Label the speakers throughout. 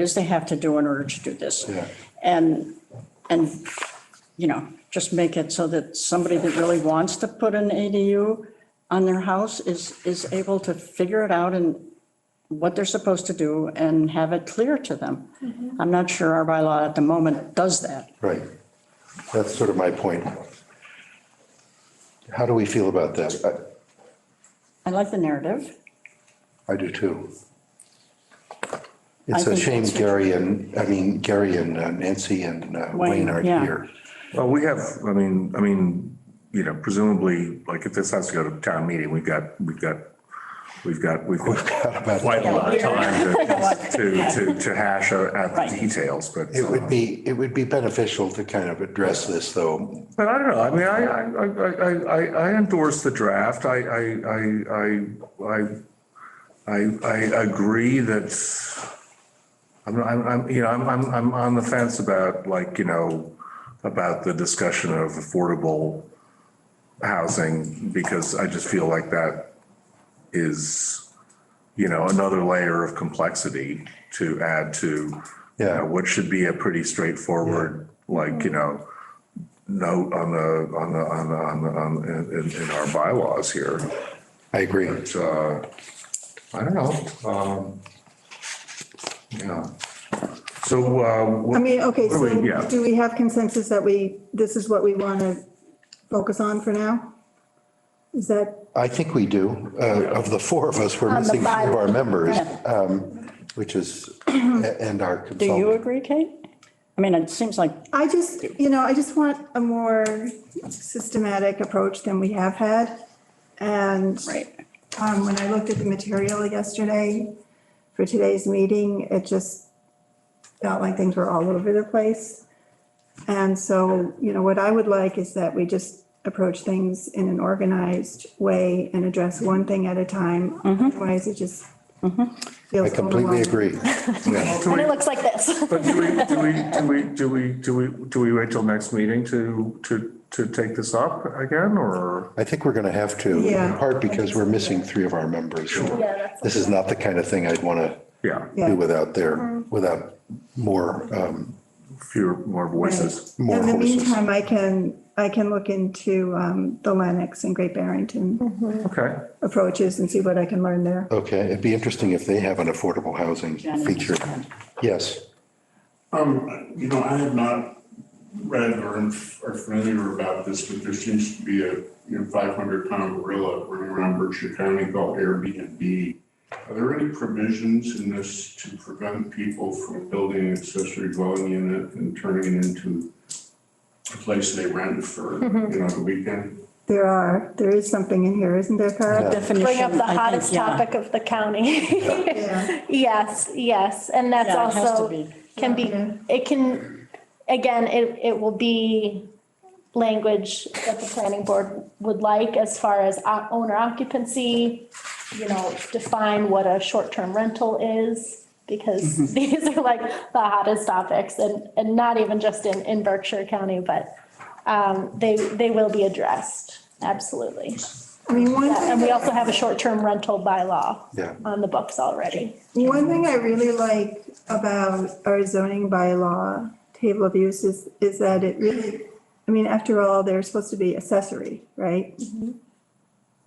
Speaker 1: is they have to do in order to do this.
Speaker 2: Yeah.
Speaker 1: And, and, you know, just make it so that somebody that really wants to put an ADU on their house is, is able to figure it out and what they're supposed to do and have it clear to them.
Speaker 3: Mm-hmm.
Speaker 1: I'm not sure our bylaw at the moment does that.
Speaker 2: Right. That's sort of my point. How do we feel about that?
Speaker 1: I like the narrative.
Speaker 2: I I do too.
Speaker 1: I
Speaker 2: It's a
Speaker 1: think
Speaker 2: shame
Speaker 1: that's-
Speaker 2: Gary and, I mean, Gary and uh, Nancy and uh,
Speaker 1: Wayne,
Speaker 2: Wayne aren't
Speaker 1: yeah.
Speaker 2: here.
Speaker 4: Well, we have, I mean, I mean, you know, presumably, like if this has to go to town meeting, we've got, we've got, we've got, we've got quite a lot of time to, to, to- to hash out out the
Speaker 1: Right.
Speaker 4: details, but.
Speaker 2: It would be, it would be beneficial to kind of address this though.
Speaker 4: But I don't know, I mean, I, I, I, I- I, I endorse the draft, I, I, I, I, I, I, I agree that, I'm, I'm, I'm, you know, I'm, I'm, I'm on the fence about like, you know, about the discussion of affordable housing, because I just feel like that is, you know, another layer of complexity to add to, you
Speaker 2: Yeah.
Speaker 4: know, what should be a pretty straightforward, like, you know, note on the, on the, on the, on the, on, in- in, in our bylaws here.
Speaker 2: I agree.
Speaker 4: But, uh, I don't know, um, yeah. So, uh,
Speaker 5: I
Speaker 4: what-
Speaker 5: mean, okay,
Speaker 4: What do we-
Speaker 5: so
Speaker 4: yeah.
Speaker 5: do we have consensus that we, this is what we want to focus on for now? Is that,
Speaker 2: I think we do. Uh, Of the four of us, we're
Speaker 3: On the
Speaker 2: missing two of
Speaker 3: bylaw.
Speaker 2: our members, um, which is, and our
Speaker 1: Do you
Speaker 2: consultant.
Speaker 1: agree, Kate? I mean, it seems like,
Speaker 5: I just, you know, I just want a more systematic approach than we have had. And
Speaker 1: right,
Speaker 5: um, when I looked at the material yesterday for today's meeting, it just felt like things were all over the place. And so, you know, what I would like is that we just approach things in an organized way and address one thing at a time. Otherwise, it just
Speaker 2: I
Speaker 5: feels
Speaker 2: completely
Speaker 5: overwhelming.
Speaker 2: agree.
Speaker 4: do
Speaker 3: And it
Speaker 4: we,
Speaker 3: looks like this.
Speaker 4: but do we, do we, do we, do we, do we, do we wait till next meeting to, to, to take this up again, or?
Speaker 2: I think we're going to have to, in
Speaker 5: Yeah.
Speaker 2: part because we're missing three of our members.
Speaker 3: that's-
Speaker 2: This is not the kind of thing I'd want to
Speaker 4: Yeah,
Speaker 5: Yeah. Mm-hmm.
Speaker 2: do without their, without more, um,
Speaker 4: fewer, more voices.
Speaker 2: more
Speaker 5: In the
Speaker 2: voices.
Speaker 5: meantime, I can, I can look into um, the Lennox and Great Barrington
Speaker 4: Okay,
Speaker 5: approaches and see what I can learn there.
Speaker 2: Okay, it'd be interesting if they have an affordable housing
Speaker 1: Jenny.
Speaker 2: feature. Yes,
Speaker 6: Um, you know, I have not read or am- are familiar about this, but there seems to be a, you know, five hundred pound gorilla running around Berkshire County called Airbnb. Are there any provisions in this to prevent people from building an accessory dwelling unit and turning it into a place they rent for, you know, the weekend?
Speaker 5: There are, there is something in here, isn't there, Cara?
Speaker 1: definition.
Speaker 3: Bring up the
Speaker 1: I think,
Speaker 3: hottest
Speaker 1: yeah.
Speaker 3: topic of the county.
Speaker 5: Yeah.
Speaker 3: Yes, yes, and that's
Speaker 1: Yeah, it has to
Speaker 3: also,
Speaker 1: be.
Speaker 3: can be,
Speaker 5: Yeah.
Speaker 3: it can, again, it, it will be language that the planning board would like as far as o- owner occupancy, you know, define what a short-term rental is,
Speaker 1: Mm-hmm.
Speaker 3: because these are like the hottest topics, and, and not even just in, in Berkshire County, but um, they, they will be addressed, absolutely.
Speaker 5: I mean, one
Speaker 3: Yeah,
Speaker 5: thing
Speaker 3: And we also have a short-term rental bylaw.
Speaker 2: Yeah.
Speaker 3: On the books already.
Speaker 5: One thing I really like about our zoning bylaw table of uses is that it really, I mean, after all, they're supposed to be accessory, right?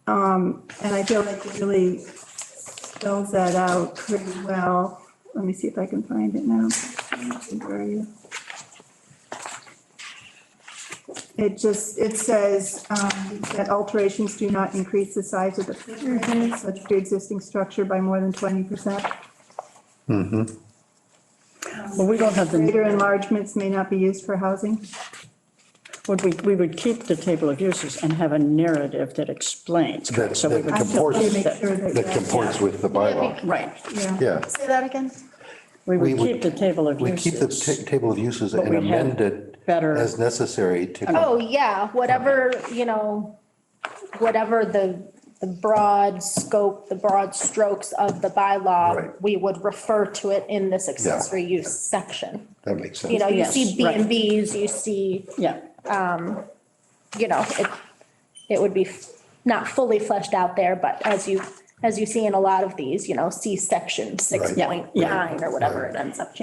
Speaker 5: Um, and I feel like it really spells that out pretty well. Let me see if I can find it now. Where are you? It just, it says um, that alterations do not increase the size of the footprint of such pre-existing structure by more than 20%.
Speaker 1: Well, we don't have the,
Speaker 5: Greater enlargements may not be used for housing.
Speaker 1: would we, we would keep the table of uses and have a narrative that explains.
Speaker 2: That-
Speaker 1: So we
Speaker 2: that
Speaker 1: would
Speaker 5: I just wanna
Speaker 2: Comports.
Speaker 5: make sure that-
Speaker 2: that comports with the bylaw.
Speaker 1: Right,
Speaker 5: Yeah,
Speaker 2: Yeah,
Speaker 3: Say that again?
Speaker 1: we
Speaker 2: We
Speaker 1: would
Speaker 2: would-
Speaker 1: keep the table of
Speaker 2: we keep the ta-
Speaker 1: uses.
Speaker 2: table of uses
Speaker 1: But
Speaker 2: and
Speaker 1: we have
Speaker 2: amend it
Speaker 1: better-
Speaker 2: as necessary to,
Speaker 3: Oh, yeah, whatever, you know, whatever the, the broad scope, the broad strokes of the bylaw,
Speaker 2: Right.
Speaker 3: we would refer to it in this accessory use section.
Speaker 2: that makes sense.
Speaker 3: You know, you
Speaker 1: Yes,
Speaker 3: see B
Speaker 1: right.
Speaker 3: and Bs, you see,
Speaker 1: Yeah,
Speaker 3: you know, it, it would be f- not fully fleshed out there, but as you, as you see in a lot of these, you know, see section six
Speaker 2: Right.
Speaker 1: Yeah,
Speaker 3: point
Speaker 1: yeah.
Speaker 3: nine or whatever it ends up being.